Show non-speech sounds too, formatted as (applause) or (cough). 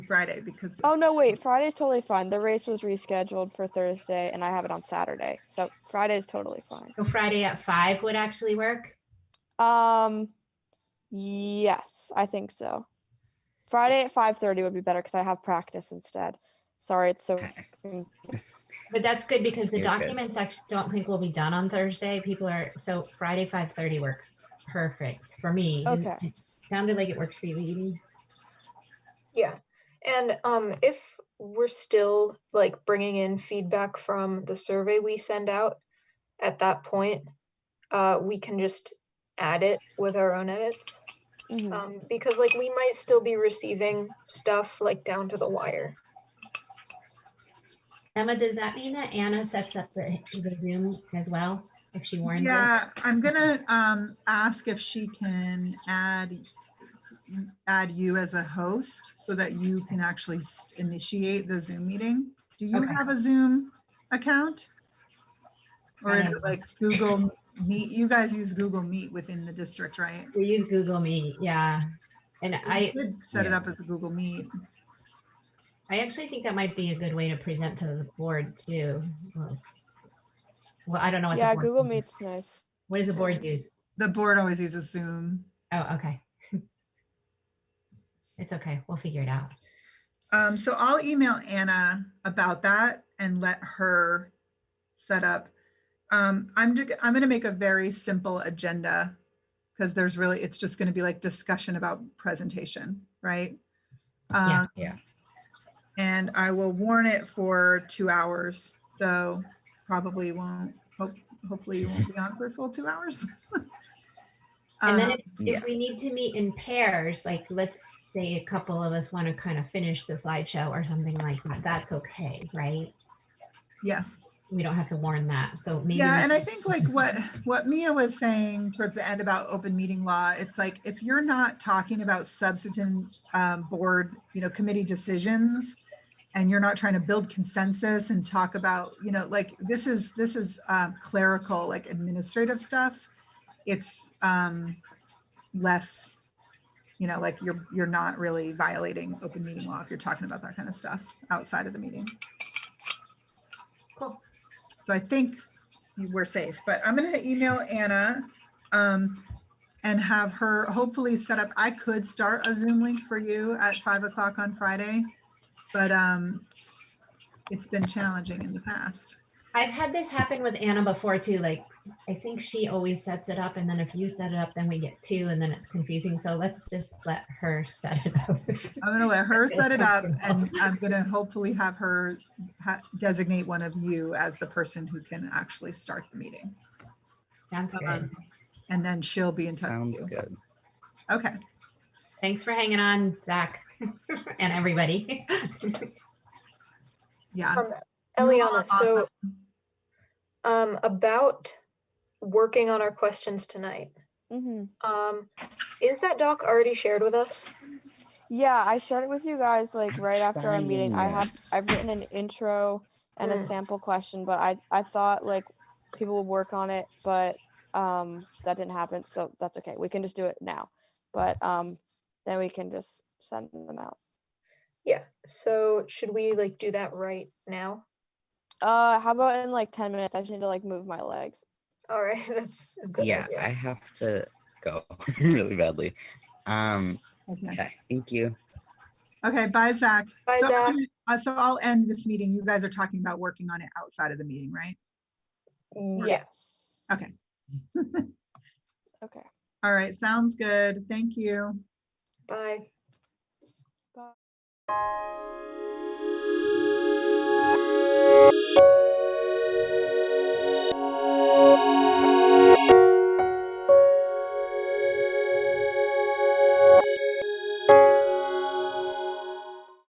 Friday because Oh no, wait. Friday's totally fine. The race was rescheduled for Thursday, and I have it on Saturday, so Friday's totally fine. So Friday at five would actually work. Um, yes, I think so. Friday at five thirty would be better because I have practice instead. Sorry, it's so. Okay. But that's good because the You're good. documents actually don't think will be done on Thursday. People are, so Friday, five thirty works perfect for me. Does it- Okay. Sounded like it worked for you, Edie. Yeah. And um, if we're still like bringing in feedback from the survey we send out at that point, uh, we can just add it with our own edits. Mhm. Oh, Um, because like we might still be receiving stuff like down to the wire. Emma, does that mean that Anna sets up the the Zoom as well if she warns us? Yeah, I'm gonna um ask if she can add add you as a host so that you can actually s- initiate the Zoom meeting. Do you Okay. have a Zoom account? Or is I it like Google Meet? You guys use Google Meet within the district, right? We use Google Meet, yeah. And So you I, could Set it Yeah. up as a Google Meet. I actually think that might be a good way to present to the board too. Well, well, I don't know what. the Yeah, board Google uses. Meet's nice. What does the board use? The board always uses Zoom. Oh, okay. It's okay. We'll figure it out. Um, so I'll email Anna about that and let her set up. Um, I'm, ju- I'm gonna make a very simple agenda because there's really, it's just gonna be like discussion about presentation, right? Yeah. Um, Yeah. And I will warn it for two hours, so probably won't, hope, hopefully you won't be on for a full two hours. (laughs) And then Um, if, if we need to meet in pairs, like let's say a couple of us want to kind of finish the slideshow or something like that, that's okay, right? Yes. We don't have to warn that. So maybe. Yeah, we- and I think like what, what Mia was saying towards the end about open meeting law, it's like, if you're not talking about substantive um, board, you know, committee decisions, and you're not trying to build consensus and talk about, you know, like, this is, this is um, clerical, like administrative stuff. It's um less, you know, like you're, you're not really violating open meeting law if you're talking about that kind of stuff outside of the meeting. Cool. So I think you we're safe, but I'm gonna email Anna um, and have her hopefully set up, I could start a Zoom link for you at five o'clock on Friday, but um, it's been challenging in the past. I've had this happen with Anna before too. Like, I think she always sets it up, and then if you set it up, then we get two, and then it's confusing. So let's just let her (laughs) set it up. I'm gonna let her set it up and I'm gonna hopefully have her ha- designate one of you as the person who can actually start the meeting. Sounds good. Um, And then she'll be in touch. with Sounds you. good. Okay, Thanks for hanging on, Zach, (laughs) and everybody. (laughs) yeah. Um, Eliana, so awesome. um, about working on our questions tonight, hmm um, is that doc already shared with us? Yeah, I shared it with you guys like right after our meeting. I Trying have I've written an intro and a Mm. sample question, but I I thought like people would work on it, but um that didn't happen, so that's okay. We can just do it now, but um then we can just send them out. Yeah. So should we like do that right now? Uh, how about in like ten minutes? I just need to like move my legs. All right, (laughs) that's a good. Yeah, idea. I have to go (laughs) really badly. Um, Okay. yeah, thank you. Okay, bye Zach. Bye, So Zach. I'm gonna- uh, So I'll end this meeting. You guys are talking about working on it outside of the meeting, right? Yeah. Yes. Okay. Okay. All right, sounds good. Thank you. Bye.